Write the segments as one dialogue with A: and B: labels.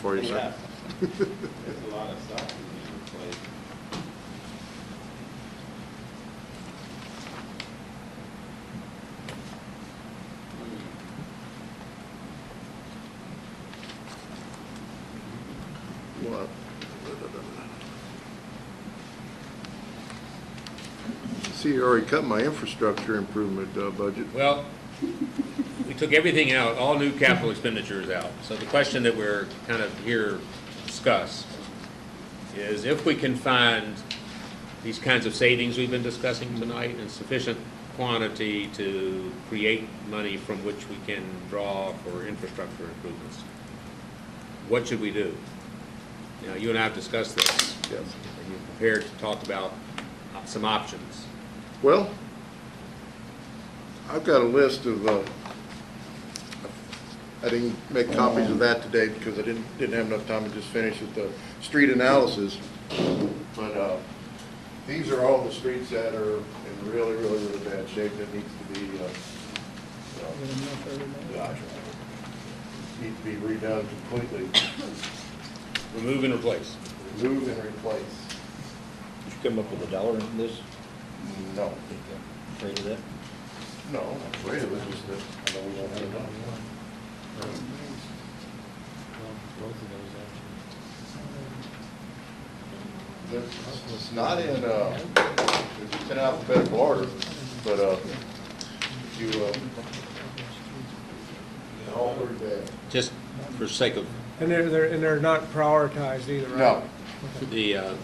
A: for you,
B: Yeah.
A: sir.
B: There's a lot of stuff that we need to replace.
A: What? See, you already cut my infrastructure improvement uh, budget.
C: Well, we took everything out, all new capital expenditures out. So the question that we're kind of here to discuss is if we can find these kinds of savings we've been discussing tonight in sufficient quantity to create money from which we can draw for infrastructure improvements, what should we do? Now, you and I have discussed this,
A: Yes.
C: and you're prepared to talk about uh, some options.
A: Well, I've got a list of, uh, I didn't make copies of that today because I didn't, didn't have enough time to just finish with the street analysis. But, uh, these are all the streets that are in really, really, really bad shape that needs to be, uh, uh, gosh, need to be redone completely,
C: Remove and replace.
A: remove and replace.
D: Did you come up with a dollar in this?
A: No,
D: I think I'm Afraid of that?
A: no, I'm afraid it was just that, I know we don't have enough. It's it's not in, uh, it's in alphabetical order, but, uh, you, uh, altered that.
C: just for sake of
E: And they're, they're, and they're not prioritized either, right?
A: No,
C: the, uh,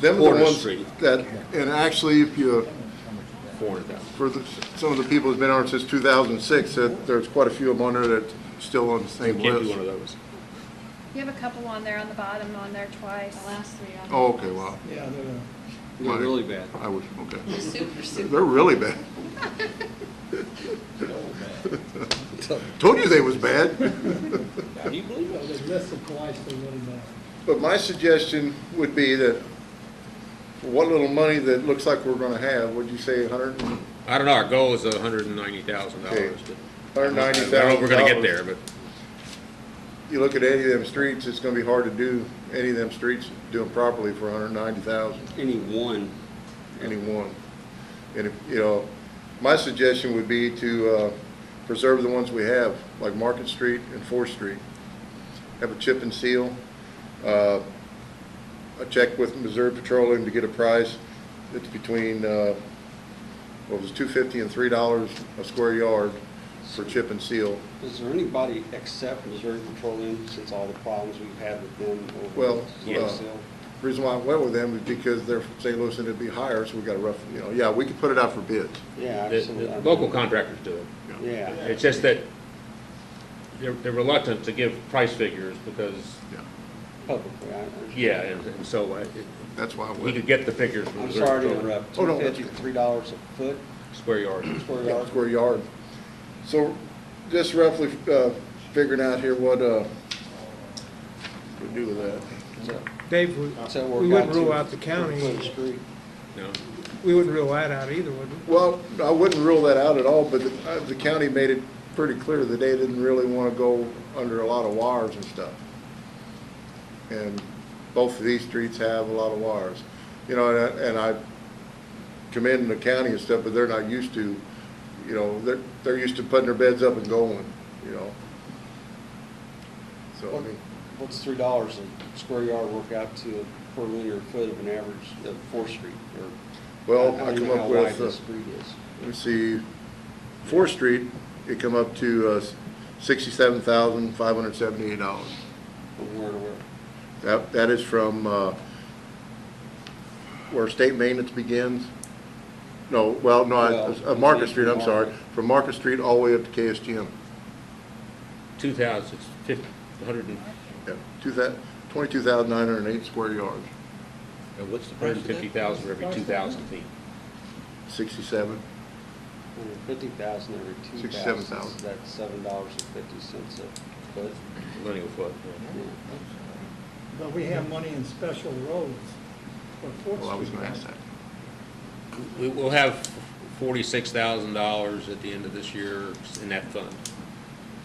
A: them are
C: Porter
A: the ones
C: Street.
A: that, and actually, if you,
C: four hundred thousand.
A: for the, some of the people who's been on it since two thousand and six, that there's quite a few of them on there that's still on the
C: You
A: same
C: can't do
A: list.
C: one of those.
F: You have a couple on there on the bottom, on there twice.
G: The last three on.
A: Oh, okay, wow,
E: Yeah, they're.
A: They're really
D: bad.
A: I was, okay.
G: Super, super.
A: They're really bad. Told you they was bad.
D: Now, do you believe it?
A: But my suggestion would be that for what little money that looks like we're gonna have, would you say a hundred, and-
C: I don't know, our goal is a hundred and ninety thousand dollars, but.
A: hundred and ninety
C: I
A: thousand
C: don't know
A: dollars?
C: if we're gonna get there, but
A: You look at any of them streets, it's gonna be hard to do any of them streets, do them properly for a hundred and ninety thousand,
H: Any one,
A: any one. And, if- you know, my suggestion would be to, uh, preserve the ones we have, like Market Street and Fourth Street. Have a chip and seal, uh, I checked with Missouri Petroleum to get a price. It's between, uh, what was it, two fifty and three dollars a square yard for chip and seal.
H: is there anybody except Missouri Petroleum, since all the problems we've had with them over
A: Well,
H: the
A: yeah.
H: slave sale?
A: Reason why I went with them is because they're from St. Louis and it'd be higher, so we got a rough, you know, yeah, we could put it out for bids.
H: Yeah,
C: the,
H: absolutely.
C: the local contractors do it.
H: Yeah.
C: It's just that they're, they're reluctant to give price figures because,
A: Yeah,
H: Publicly, I understand.
C: yeah, and and so I- it-
A: That's why I
C: we could
A: went.
C: get the figures from
H: I'm
C: Missouri
H: sorry to
C: Petroleum,
H: interrupt.
A: Oh,
H: Two
A: no,
H: fifty, three dollars a foot,
C: square yard.
H: square
A: Yeah,
H: yard?
A: Square yard. So just roughly, uh, figuring out here what, uh, we do with that.
E: Dave, we,
H: So
E: We
H: we're
E: wouldn't
H: got
E: rule
H: to-
E: out the county.
H: to the street.
C: No,
E: we wouldn't rule that out either, would we?
A: Well, I wouldn't rule that out at all, but the uh, the county made it pretty clear that they didn't really want to go under a lot of wires and stuff. And both of these streets have a lot of wires. You know, and I- and I commend the county and stuff, but they're not used to, you know, they're, they're used to putting their beds up and going, you know? So, I mean,
H: What's three dollars a square yard work out to per linear foot of an average of Fourth Street or?
A: well,
H: don't
A: I
H: even
A: come
H: know
A: up
H: how
A: with.
H: wide
A: uh,
H: the street is.
A: let me see, Fourth Street, it come up to uh, sixty-seven thousand, five hundred seventy-eight dollars.
H: From where to where?
A: That, that is from, uh, where state maintenance begins. No, well, no, I- uh, Market Street, I'm sorry, from Market Street all the way up to KSGM.
C: two thousand, fifty, a hundred and,
A: Yeah, two thou, twenty-two thousand nine hundred and eight square yards,
D: And what's the
C: hundred
D: price
C: and
D: of that?
C: fifty thousand for every two thousand feet.
A: sixty-seven.
H: Hundred fifty thousand every two
A: Sixty-seven
H: thousand, so that's seven dollars and fifty cents a foot.
C: linear foot.
H: Yeah.
I: But we have money in special roads for Fourth Street.
A: Well, I was gonna ask that.
C: We will have forty-six thousand dollars at the end of this year in that fund.